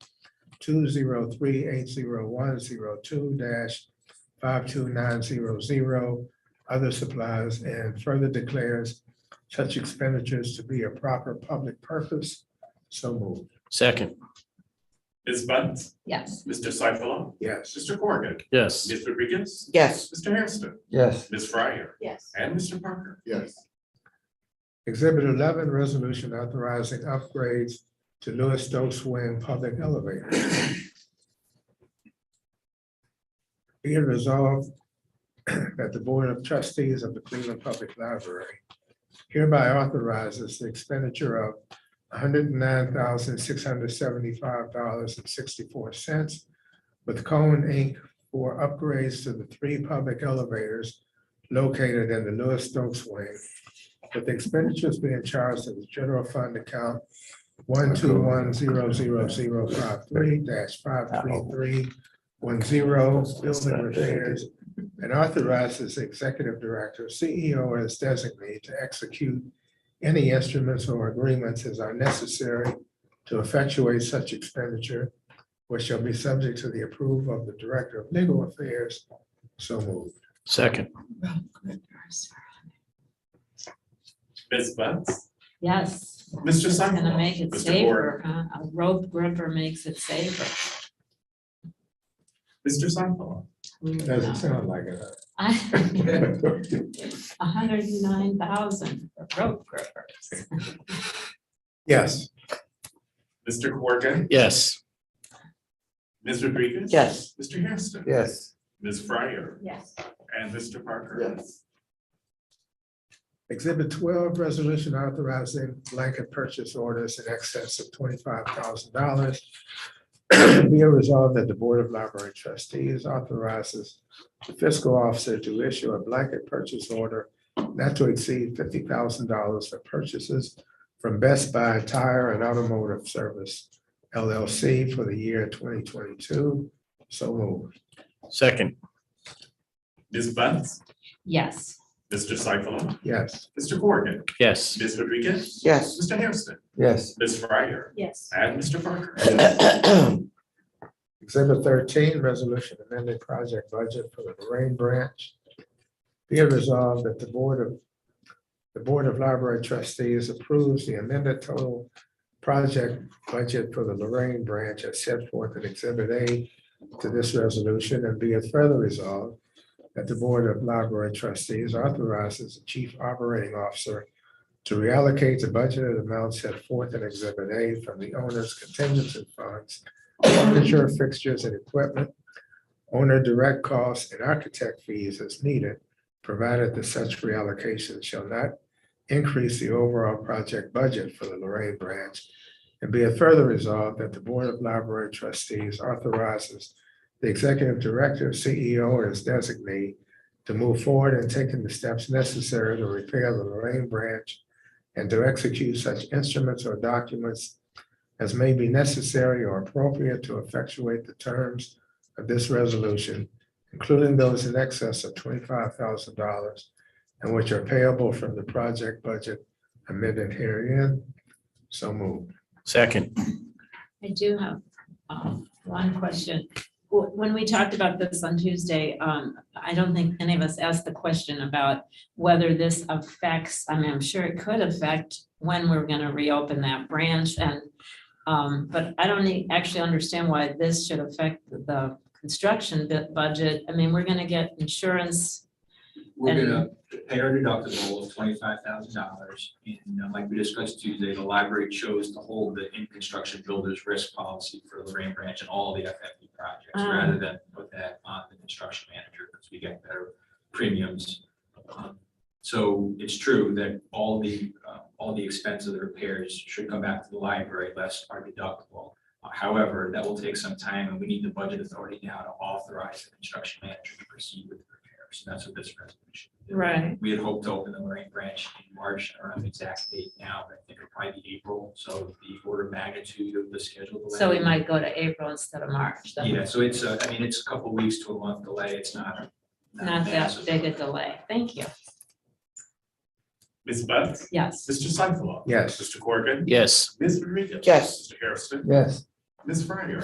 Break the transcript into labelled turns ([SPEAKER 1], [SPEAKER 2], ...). [SPEAKER 1] two zero three eight zero one zero two dash five two nine zero zero, other supplies, and further declares such expenditures to be a proper public purpose. So moved.
[SPEAKER 2] Second,
[SPEAKER 3] Ms. Bunt,
[SPEAKER 4] yes,
[SPEAKER 3] Mr. Seifullah,
[SPEAKER 1] Yes.
[SPEAKER 3] Mr. Corrigan,
[SPEAKER 2] yes.
[SPEAKER 3] Ms. Rodriguez,
[SPEAKER 5] yes,
[SPEAKER 3] Mr. Hairston,
[SPEAKER 6] yes,
[SPEAKER 3] Ms. Fryer,
[SPEAKER 4] yes,
[SPEAKER 3] and Mr. Parker.
[SPEAKER 7] yes,
[SPEAKER 1] Exhibit eleven, resolution authorizing upgrades to Lewis Stokes Wing Public Elevator. Be it resolved that the Board of Trustees of the Cleveland Public Library hereby authorizes the expenditure of hundred and nine thousand, six hundred seventy-five dollars and sixty-four cents with Cone Inc. for upgrades to the three public elevators located in the Lewis Stokes Wing with expenditures being charged to the general fund account one two one zero zero zero five three dash five three three one zero building repairs and authorizes the executive director, E CEO as designated to execute any instruments or agreements as are necessary to effectuate such expenditure, which shall be subject to the approval of the Director of Legal Affairs. So moved.
[SPEAKER 2] Second,
[SPEAKER 3] Ms. Bunt,
[SPEAKER 4] yes.
[SPEAKER 3] Mr.
[SPEAKER 4] It's Gonna
[SPEAKER 3] Seifullah,
[SPEAKER 4] make it
[SPEAKER 3] Mr. Corrigan,
[SPEAKER 4] safer, huh? A rope gripper makes it safer.
[SPEAKER 3] Mr. Seifullah,
[SPEAKER 1] Doesn't sound like it.
[SPEAKER 4] hundred and nine thousand for rope grippers.
[SPEAKER 1] Yes.
[SPEAKER 3] Mr. Corrigan,
[SPEAKER 2] yes.
[SPEAKER 3] Ms. Rodriguez.
[SPEAKER 5] yes.
[SPEAKER 3] Mr. Hairston.
[SPEAKER 6] yes.
[SPEAKER 3] Ms. Fryer
[SPEAKER 4] Yes.
[SPEAKER 3] and Mr. Parker.
[SPEAKER 7] yes.
[SPEAKER 1] Exhibit twelve, resolution authorizing blanket purchase orders in excess of twenty-five thousand dollars. Be it resolved that the Board of Library Trustees authorizes the fiscal officer to issue a blanket purchase order not to exceed fifty thousand dollars for purchases from Best Buy Tire and Automotive Service LLC for the year twenty twenty-two. So moved.
[SPEAKER 2] Second,
[SPEAKER 3] Ms. Bunt,
[SPEAKER 4] Yes.
[SPEAKER 3] Mr. Seifullah,
[SPEAKER 1] Yes.
[SPEAKER 3] Mr. Corrigan,
[SPEAKER 2] yes.
[SPEAKER 3] Ms. Rodriguez.
[SPEAKER 5] Yes.
[SPEAKER 3] Mr. Hairston,
[SPEAKER 6] Yes.
[SPEAKER 3] Ms. Fryer
[SPEAKER 4] Yes.
[SPEAKER 3] and Mr. Parker.
[SPEAKER 1] Exhibit thirteen, resolution amended project budget for the Lorraine Branch. Be it resolved that the Board of, the Board of Library Trustees approves the amended total project budget for the Lorraine Branch as set forth in Exhibit A to this resolution, and be it further resolved that the Board of Library Trustees authorizes the Chief Operating Officer to reallocate the budgeted amount set forth in Exhibit A from the owner's contingency funds furniture, fixtures, and equipment, owner direct costs, and architect fees as needed, provided that such reallocation shall not increase the overall project budget for the Lorraine branch. And be it further resolved that the Board of Library Trustees authorizes the executive director, CEO, or his designee to move forward in taking the steps necessary to repair the Lorraine branch and to execute such instruments or documents as may be necessary or appropriate to effectuate the terms of this resolution, including those in excess of twenty-five thousand dollars and which are payable from the project budget amended herein. So moved.
[SPEAKER 2] Second,
[SPEAKER 4] I do have um, one question. Wh- When we talked about this on Tuesday, um, I don't think any of us asked the question about whether this affects, I mean, I'm sure it could affect when we're going to reopen that branch and, um, but I don't e- actually understand why this should affect the construction bu- budget. I mean, we're going to get insurance.
[SPEAKER 8] We're
[SPEAKER 4] And-
[SPEAKER 8] gonna pay our deductible of twenty-five thousand dollars, and uh, like we discussed Tuesday, the library chose to hold the in-construction builder's risk policy for Lorraine Branch and all the FFP projects,
[SPEAKER 4] Ah.
[SPEAKER 8] rather than put that on the construction manager, because we get better premiums. Um, So it's true that all the, uh, all the expense of the repairs should come back to the library less our deductible. Uh, However, that will take some time, and we need the budget authority now to authorize the construction manager to proceed with the repairs, and that's what this resolution. is.
[SPEAKER 4] Right.
[SPEAKER 8] We had hoped to open the Lorraine branch in March, I don't know the exact date now, but I think it'll probably be April, so the order of magnitude of the schedule. delay-
[SPEAKER 4] So we might go to April instead of March. That-
[SPEAKER 8] Yeah, so it's, uh, I mean, it's a couple weeks to a month delay, it's not.
[SPEAKER 4] Not that
[SPEAKER 8] massive.
[SPEAKER 4] big a delay. Thank you.
[SPEAKER 3] Ms. Bunt,
[SPEAKER 4] Yes.
[SPEAKER 3] Mr. Seifullah.
[SPEAKER 1] Yes.
[SPEAKER 3] Mr. Corrigan,
[SPEAKER 2] yes.
[SPEAKER 3] Ms. Rodriguez.
[SPEAKER 5] Yes.
[SPEAKER 3] Mr. Hairston,
[SPEAKER 6] Yes.
[SPEAKER 3] Ms. Fryer